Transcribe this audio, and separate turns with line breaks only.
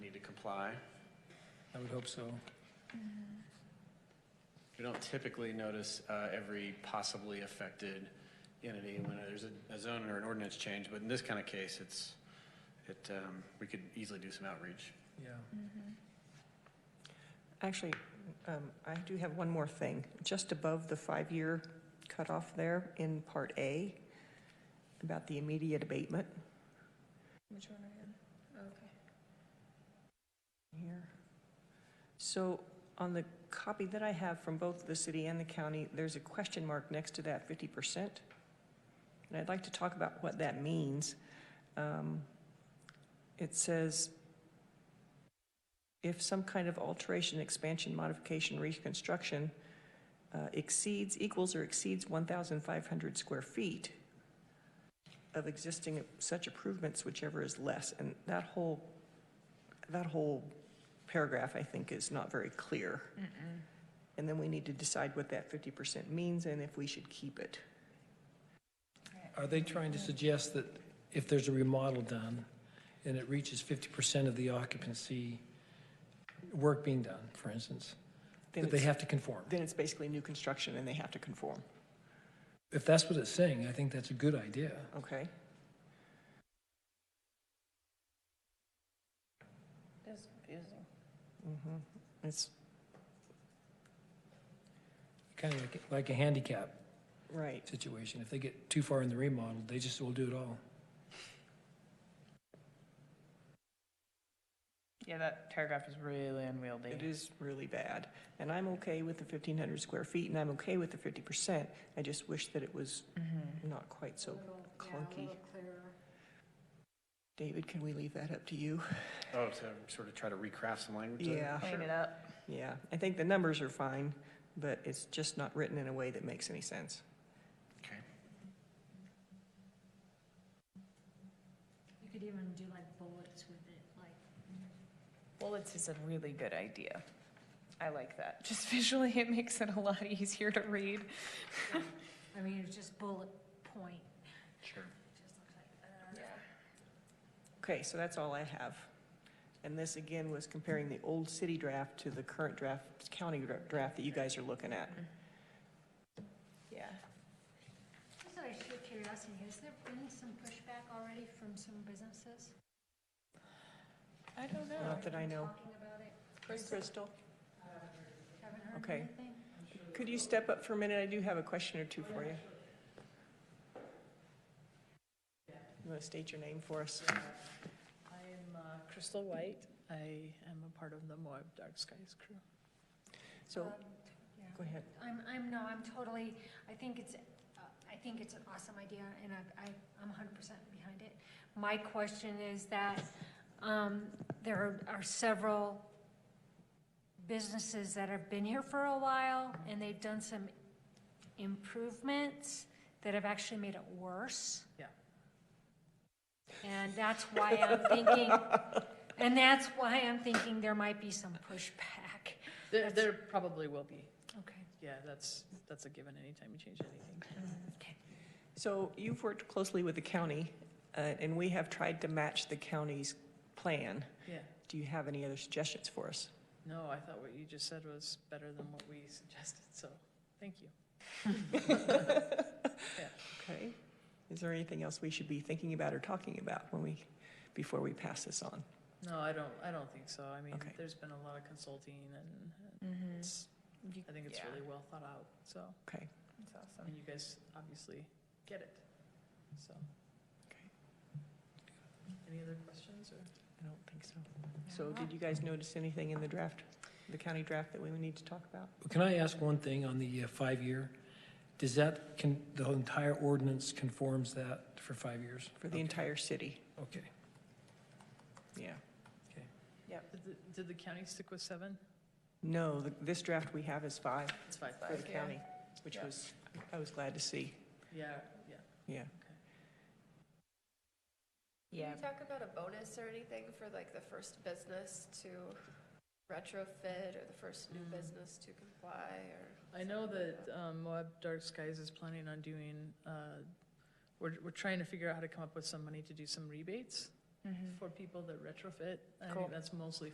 apply.
I would hope so.
We don't typically notice uh, every possibly affected entity when there's a- a zone or an ordinance change, but in this kind of case, it's, it, um, we could easily do some outreach.
Yeah.
Actually, um, I do have one more thing. Just above the five-year cutoff there in Part A, about the immediate abatement
Which one are you on? Okay.
here. So on the copy that I have from both the city and the county, there's a question mark next to that 50%. And I'd like to talk about what that means. Um, It says, if some kind of alteration, expansion, modification, reconstruction uh, exceeds, equals or exceeds 1,500 square feet of existing such improvements, whichever is less. And that whole, that whole paragraph, I think, is not very clear. And then we need to decide what that 50% means and if we should keep it.
Are they trying to suggest that if there's a remodel done and it reaches 50% of the occupancy work being done, for instance,
Then
that they
it's-
have to conform?
Then it's basically new construction and they have to conform,
If that's what it's saying, I think that's a good idea.
okay?
That's confusing.
It's,
Kind of like, like a handicap
right.
situation. If they get too far in the remodel, they just will do it all.
Yeah, that paragraph is really unwieldy.
It is really bad. And I'm okay with the 1,500 square feet and I'm okay with the 50%. I just wish that it was
Mm-hmm.
not quite so clunky. David, can we leave that up to you?
Oh, to sort of try to recraft some language? there?
Yeah.
Clean it up.
Yeah, I think the numbers are fine, but it's just not written in a way that makes any sense.
Okay.
You could even do like bullets with it, like
Bullets is a really good idea. I like that. Just visually, it makes it a lot easier to read.
I mean, it's just bullet point.
Sure.
It just looks like. uh,
Okay, so that's all I have. And this again was comparing the old city draft to the current draft, county dra- draft that you guys are looking at.
Yeah.
Just out of sheer curiosity, has there been some pushback already from some businesses?
I don't know.
Not that I know.
Talking about it,
Crystal,
haven't heard
Okay.
anything?
could you step up for a minute? I do have a question or two for you. You want to state your name for us?
I am uh, Crystal White. I am a part of the Moab Dark Skies crew.
So,
Um, yeah.
go ahead.
I'm, I'm, no, I'm totally, I think it's, uh, I think it's an awesome idea, and I, I, I'm hundred percent behind it. My question is that, um, there are- are several businesses that have been here for a while, and they've done some improvements that have actually made it worse.
Yeah.
And that's why I'm thinking, and that's why I'm thinking there might be some pushback.
There, there probably will be.
Okay,
Yeah, that's, that's a given anytime you change anything.
okay.
So you've worked closely with the county, uh, and we have tried to match the county's plan.
Yeah.
Do you have any other suggestions for us?
No, I thought what you just said was better than what we suggested, so thank you.
Okay. Is there anything else we should be thinking about or talking about when we, before we pass this on?
No, I don't, I don't think so. I mean,
Okay.
there's been a lot of consulting and
Mhm.
it's,
You-
I think it's
yeah,
really well thought out, so.
Okay.
It's awesome.
And you guys obviously get it, so.
Okay.
Any other questions or?
I don't think so. So did you guys notice anything in the draft, the county draft that we need to talk about?
Can I ask one thing on the uh, five-year? Does that, can, the entire ordinance conforms that for five years?
For the entire city?
Okay.
Yeah.
Did the- Did the county stick with seven?
No, th- this draft we have is five
It's five.
for the
Five, yeah.
county, which
Yeah.
was, I was glad to see.
Yeah, yeah.
Yeah.
Yeah.
Can we talk about a bonus or anything for like the first business to retrofit or the first new business to comply or?
I know that um, Moab Dark Skies is planning on doing, uh, we're, we're trying to figure out how to come up with some money to do some rebates for people that retrofit. I
Cool.
think that's mostly